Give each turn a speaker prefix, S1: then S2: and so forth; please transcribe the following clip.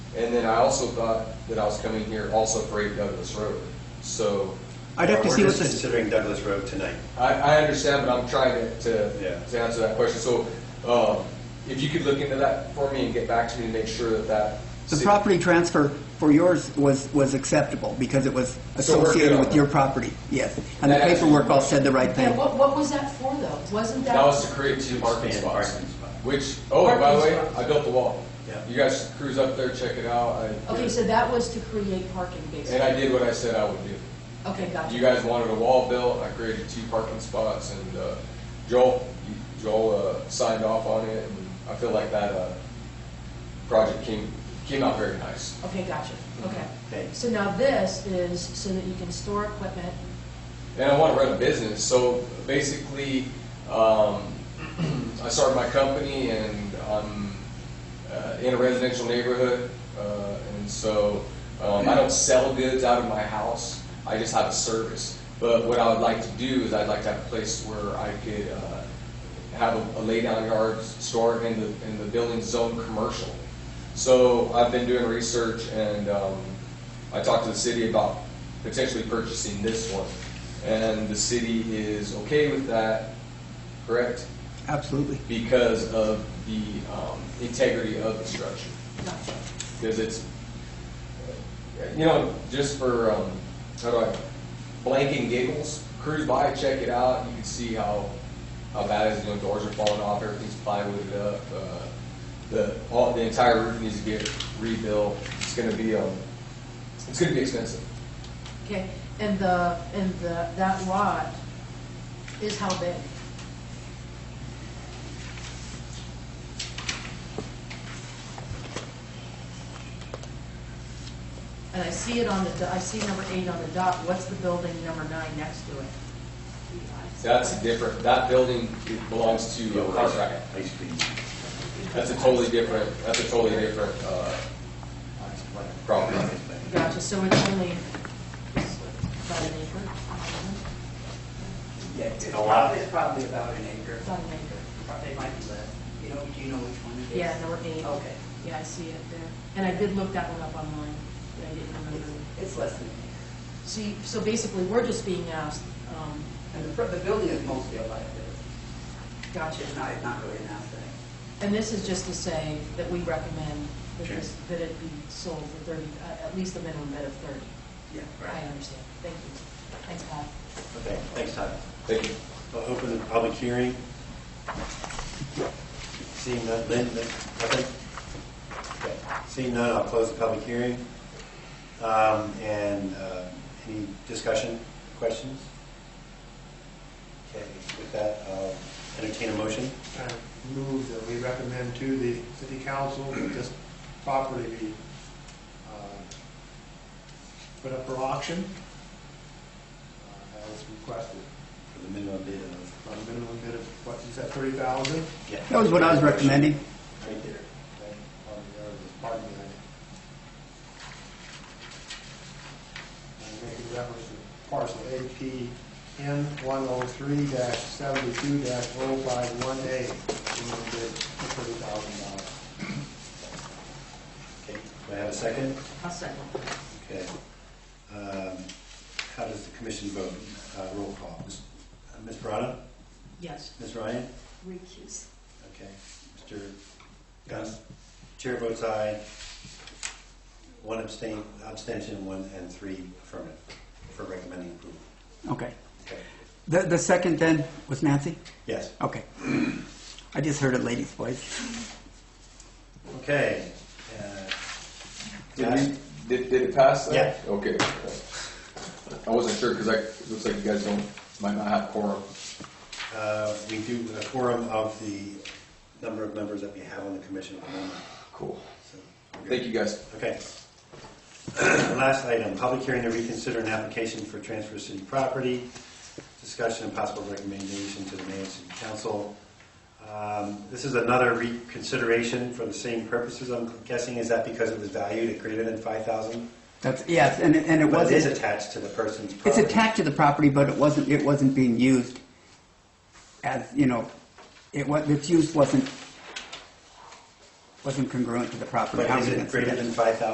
S1: And then I also thought that I was coming here also for eight Douglas Road. So
S2: I'd have to
S3: We're
S2: see what
S3: just
S2: this-
S3: Considering Douglas Road tonight.
S1: I, I understand, but I'm trying to,
S3: Yeah.
S1: to, to answer that question. So, um, if you could look into that for me and get back to me to make sure that that.
S2: The
S1: si-
S2: property transfer for yours was, was acceptable because it was
S1: So we're good
S2: associated
S1: on
S2: with
S1: that.
S2: your property, yes. And the
S1: That actually-
S2: paperwork all said the right
S4: Yeah,
S2: thing.
S4: what, what was that for though? Wasn't that?
S1: That was to create two parking
S3: Expand
S1: spots.
S3: parking spot.
S1: Which, oh, and by the way,
S4: Parking spots.
S1: I built the wall.
S3: Yeah.
S1: You guys cruise up there, check it out. I-
S4: Okay, so that was to create parking
S1: And I
S4: basically?
S1: did what I said I would do.
S4: Okay, gotcha.
S1: You guys wanted a wall built, I created two parking spots, and uh, Joel, you- Joel uh, signed off on it, and I feel like that uh, project came, came out very nice.
S4: Okay, gotcha, okay.
S3: Okay.
S4: So now this is so that you can store equipment,
S1: And I want to run a business, so basically, um, I started my company, and I'm uh, in a residential neighborhood, uh, and so um, I don't sell goods out of my house, I just have a service. But what I would like to do is I'd like to have a place where I could uh, have a, a lay-down yard store in the, in the building zone commercial. So I've been doing research and, um, I talked to the city about potentially purchasing this one. And the city is okay with that, correct?
S2: Absolutely.
S1: Because of the, um, integrity of the structure.
S4: gotcha.
S1: Because it's, you know, just for, um, how do I, blank and giggles, cruise by, check it out, you can see how, how bad it is, you know, doors are falling off, everything's plywooded up, uh, the, all, the entire roof needs to get rebuilt, it's gonna be, um, it's gonna be expensive.
S4: Okay, and the, and the, that lot is how big? And I see it on the, do- I see number eight on the dot, what's the building number nine next to it?
S1: That's different, that building belongs to uh, Cartwright,
S3: Ice cream.
S1: that's a totally different, that's a totally different, uh, Property.
S4: Gotcha, so it's only about an acre?
S5: Yeah, it's
S3: A lot.
S5: probably, it's probably about an acre,
S4: About an acre.
S5: probably might be less. You know, do you know which one it is?
S4: Yeah, number eight.
S5: Okay.
S4: Yeah, I see it there. And I did look that one up online, but I didn't remember.
S5: It's- It's less than an
S4: So, you- so basically, we're just being asked, um,
S5: acre. And the, fr- the building is mostly a liability.
S4: gotcha.
S5: It's not, it's not really an asset.
S4: And this is just to say that we recommend that
S3: Sure.
S4: this, that it be sold for thirty, uh, at least a minimum bid of thirty.
S5: Yeah.
S4: I understand. Thank you. Thanks, Paul.
S3: Okay, thanks, Todd.
S1: thank you.
S3: I'll open the public hearing. Seeing none, Lynn, Lynn, nothing? Okay. Seeing none, I'll close the public hearing. Um, And uh, any discussion, questions? Okay, with that, I'll entertain a motion.
S6: I move that we recommend to the city council that this property be uh, put up for auction uh, as requested,
S3: For the minimum bid of,
S6: on a minimum bid of, what, you said, thirty thousand?
S3: yeah.
S2: That was what I was recommending.
S3: Right there.
S6: Pardon me. I'm making reference to parcel APN one oh three seventy-two 51 A, minimum bid thirty thousand dollars.
S3: Okay, do I have a second?
S4: I'll second.
S3: Okay. Um, How does the commission vote? Uh, Roll call. Ms. uh, Ms. Brada?
S4: Yes.
S3: Ms. Ryan?
S4: Recuse.
S3: Okay. Mr. Gunn? Chair votes aye. One abstain, abstention, one and three affirmative for recommending approval.
S2: Okay.
S3: Okay.
S2: The, the second then was Nancy?
S3: Yes.
S2: Okay. I just heard a lady's voice.
S3: Okay. Uh,
S1: Did we, did, did it pass? then?
S3: Yeah.
S1: Okay. I wasn't sure, because I, it looks like you guys don't, might not have quorum.
S3: uh, We do a quorum of the number of members that we have on the commission at the moment.
S1: Cool.
S3: so we're good.
S1: Thank you, guys.
S3: Okay. Last item, public hearing to reconsider an application for transfer of city property, discussion and possible recommendation to the mayor and city council. Um, This is another reconsideration for the same purposes, I'm guessing, is that because it was valued at greater than 5,000?
S2: That's, yes, and, it- and it
S3: But it is
S2: wasn't,
S3: attached to the person's
S2: it's
S3: property.
S2: attached to the property, but it wasn't, it wasn't being used as, you know, it was, its use wasn't
S7: wasn't congruent to the property.
S2: But is it greater than five thousand